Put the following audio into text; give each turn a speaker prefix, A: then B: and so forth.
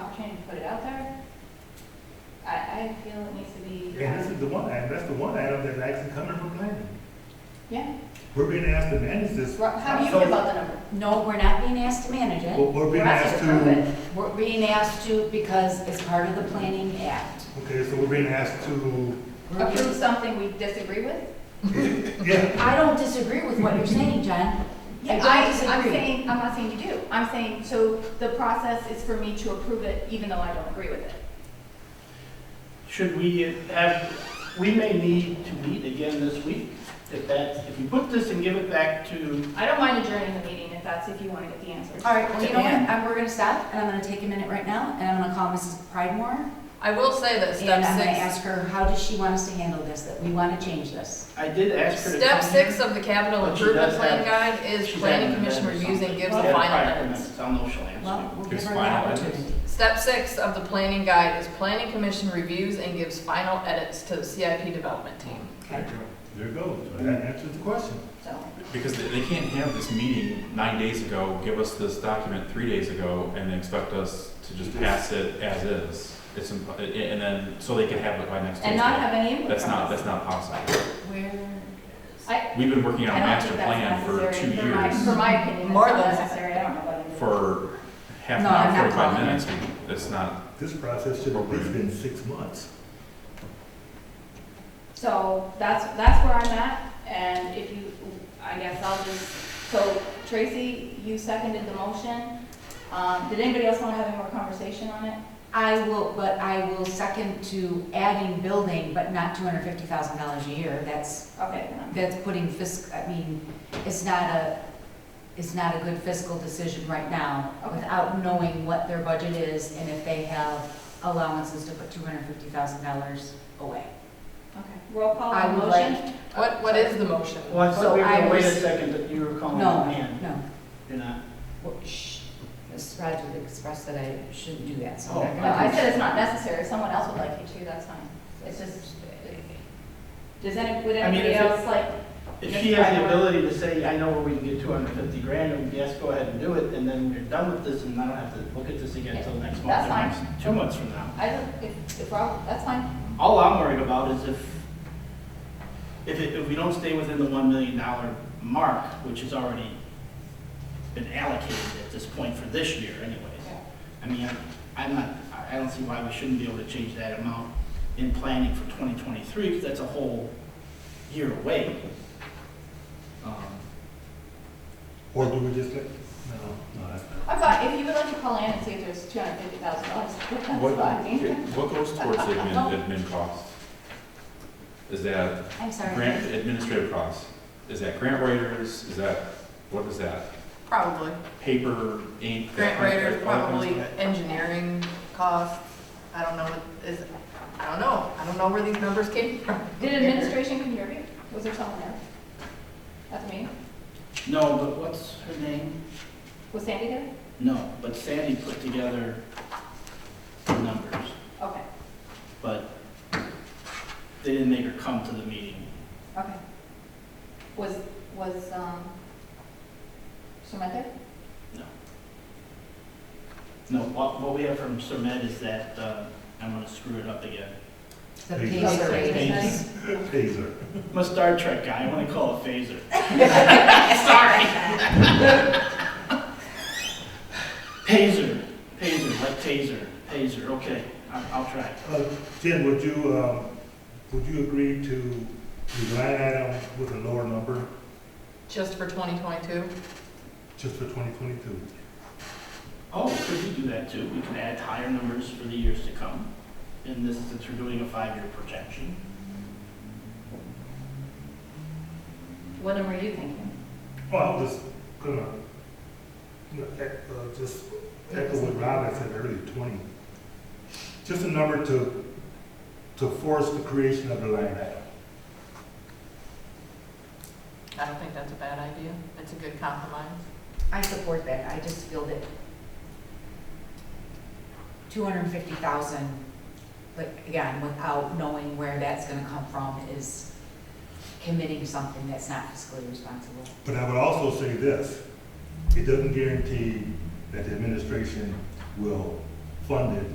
A: opportunity to put it out there. I, I feel it needs to be,
B: And this
A: um,
B: is the one item, that's the one item that's actually coming from planning.
A: yeah,
B: We're being asked to manage this.
A: Ro- how do you feel about the number?
C: No, we're not being asked to manage
B: We're,
C: it.
B: we're being
A: We're
B: asked
A: asking to approve
B: to,
A: it.
C: We're being asked to because it's part of the planning act.
B: okay, so we're being asked to,
C: We're
A: Approve
C: being-
A: something we disagree with?
B: yeah,
C: I don't disagree with what you're saying, John.
A: Yeah,
C: don't
A: I, I'm
C: disagree.
A: saying, I'm not saying you do. I'm saying, so the process is for me to approve it even though I don't agree with it.
D: Should we have, we may need to meet again this week. If that, if you put this and give it back to,
A: I don't mind adjourning the meeting if that's, if you want to get the answers.
C: All right, well, you know what, Um, we're gonna stop, and I'm gonna take a minute right now, and I'm gonna call Mrs. Pridemore,
E: I will say that
C: and I'm gonna
E: step
C: ask her, how does she want us to handle this, that we wanna change this?
D: I did ask
E: six,
D: her to
E: step
D: come here.
E: six of the capital
D: But she
E: improvement
D: does
E: plan guide is
D: She's
E: planning
D: having an
E: commission
D: event or
E: reviews
D: something.
E: and
D: She
E: gives the
D: had
E: final
D: prior
E: minutes.
D: minutes. I'll know she'll answer.
C: Well, we'll give
F: It's
C: her the
F: fine, I think.
C: opportunity.
E: Step six of the planning guide is planning commission reviews and gives final edits to the CIP development team.
C: Okay.
B: there it goes. That answers the question.
A: So,
F: Because they, they can't have this meeting nine days ago, give us this document three days ago, and expect us to just pass it as is. It's, imp- a- a- and then, so they can have it by next Tuesday.
A: and not have any input
F: That's
A: from
F: not,
A: us.
F: that's not possible.
C: Where?
A: I,
F: We've been working on
A: I
F: a
A: don't
F: master
A: think that's
F: plan for two
A: necessary, for my, for
F: years.
A: my opinion,
E: More
A: it's not
E: than-
A: necessary, I don't know about it.
F: For half an
C: No, I'm
F: hour,
C: not
F: forty-five
C: calling it.
F: minutes, We- it's not,
B: This process should have at least been six months.
A: So that's, that's where I'm at, and if you, I guess I'll just, so Tracy, you seconded the motion. Um, did anybody else want to have any more conversation on it?
C: I will, but I will second to adding building, but not two hundred fifty thousand dollars a year, that's,
A: Okay, then I'm-
C: that's putting fiscal, I mean, it's not a, it's not a good fiscal decision right now
A: Okay.
C: without knowing what their budget is and if they have allowances to put two hundred fifty thousand dollars away.
A: okay, roll call
C: I
A: on the
C: would
A: motion?
E: Oh, What, what is the motion?
D: Well, I
C: So
D: thought we were
C: I
D: gonna wait a
C: was-
D: second, that you were calling
C: No,
D: her in.
C: no,
D: You're not.
C: Well, shh, Ms. Rogers expressed that I shouldn't do that, so
D: Oh,
C: I'm
A: No,
C: not
A: I
C: gonna.
A: said it's not necessary, if someone else would like you to, that's fine. It's just, does any, would
D: I mean,
A: anybody
D: if it-
A: else like,
D: If
A: Yes,
D: she has
A: I-
D: the ability to say, I know where we can get two hundred and fifty grand, and yes, go ahead and do it, and then you're done with this, and I don't have to look at this again until next month.
A: That's
D: or
A: fine.
D: next- Two months from now.
A: I don't, if, if Rob, that's fine.
D: All I'm worried about is if, if, it- if we don't stay within the one million dollar mark, which has already been allocated at this point for this year anyways. I mean, I'm- I'm not, I I don't see why we shouldn't be able to change that amount in planning for 2023, because that's a whole year away. Um,
B: Or do we just let, no, no, that's
A: I
B: not.
A: thought, if you would like to call in and see if there's two hundred fifty thousand dollars, that's
F: what,
A: fine.
F: what goes towards the admin, admin cost? Is that
C: I'm sorry.
F: grant administrative costs? Is that grant writers? Is that, what is that?
E: Probably.
F: paper, ink.
E: Grant writers, probably
D: Okay.
E: engineering costs. I don't know what is, I don't know. I don't know where these numbers came from.
A: Did administration contribute? Was there someone there? That's me.
D: No, but what's her name?
A: Was Sandy there?
D: No, but Sandy put together the numbers,
A: Okay,
D: but they didn't make her come to the meeting.
A: okay. Was, was, um, Shemet there?
D: No, what, what we have from Sir Med is that, uh, I'm gonna screw it up again.
C: The
B: Please.
C: pay grade.
A: Shemet?
B: Taser.
D: I'm a Star Trek guy, I wanna call it phaser. Sorry. Pazer, pazer, like taser, paser, okay, I'll, I'll try.
B: Uh, Jen, would you, um, would you agree to the line item with a lower number
E: Just for 2022?
B: just for twenty twenty-two?
D: Oh, could we do that too? We could add higher numbers for the years to come, in this, since we're doing a five-year projection.
A: What number are you thinking?
B: Well, I'm just gonna, you know, ec- uh, just echo what Rob had said earlier, twenty. Just a number to, to force the creation of the line item.
E: I don't think that's a bad idea. It's a good compromise.
C: I support that, I just feel that two hundred and fifty thousand, like, again, without knowing where that's gonna come from is committing something that's not fiscally responsible.
B: But I would also say this, it doesn't guarantee that the administration will fund it